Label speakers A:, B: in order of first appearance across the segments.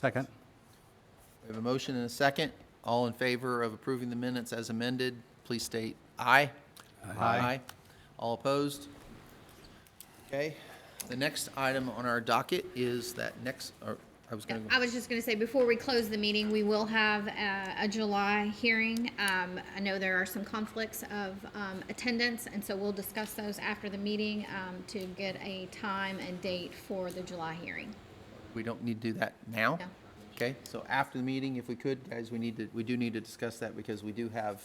A: Second.
B: We have a motion and a second. All in favor of approving the minutes as amended, please state aye. Aye. All opposed? Okay. The next item on our docket is that next, or, I was going
C: I
B: to,
C: was just gonna say, before we close the meeting, we will have a, a July hearing. Um, I know there are some conflicts of, um, attendance, and so we'll discuss those after the meeting, um, to get a time and date for the July hearing.
B: we don't need to do that now?
C: No.
B: Okay, so after the meeting, if we could, guys, we need to, we do need to discuss that because we do have,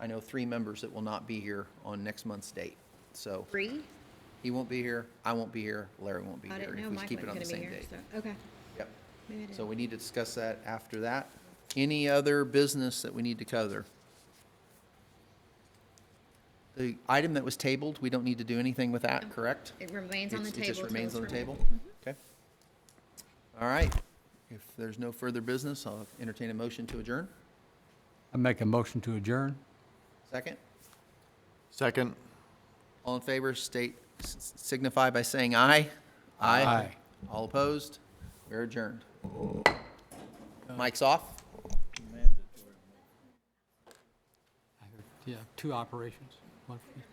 B: I know, three members that will not be here on next month's date. So
C: Bree?
B: he won't be here, I won't be here, Larry won't be
C: I
B: here.
C: didn't
B: if
C: know
B: we
C: Mike
B: keep it
C: wasn't
B: on the
C: gonna
B: same
C: be here,
B: date.
C: so, okay.
B: Yep.
C: Maybe I didn't.
B: So we need to discuss that after that. Any other business that we need to cover? The item that was tabled, we don't need to do anything with that, correct?
C: It remains on the
B: It's-
C: table.
B: It just
C: till
B: remains
C: it's
B: on the
C: removed.
B: table?
C: Mm-hmm.
B: Okay. All right. If there's no further business, I'll entertain a motion to adjourn.
A: I make a motion to adjourn.
B: Second?
D: Second.
B: All in favor, state, s- signify by saying aye.
A: Aye.
B: All opposed? We're adjourned. Mike's off?
A: Yeah, two operations. One for each.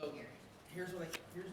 B: So here's what I, here's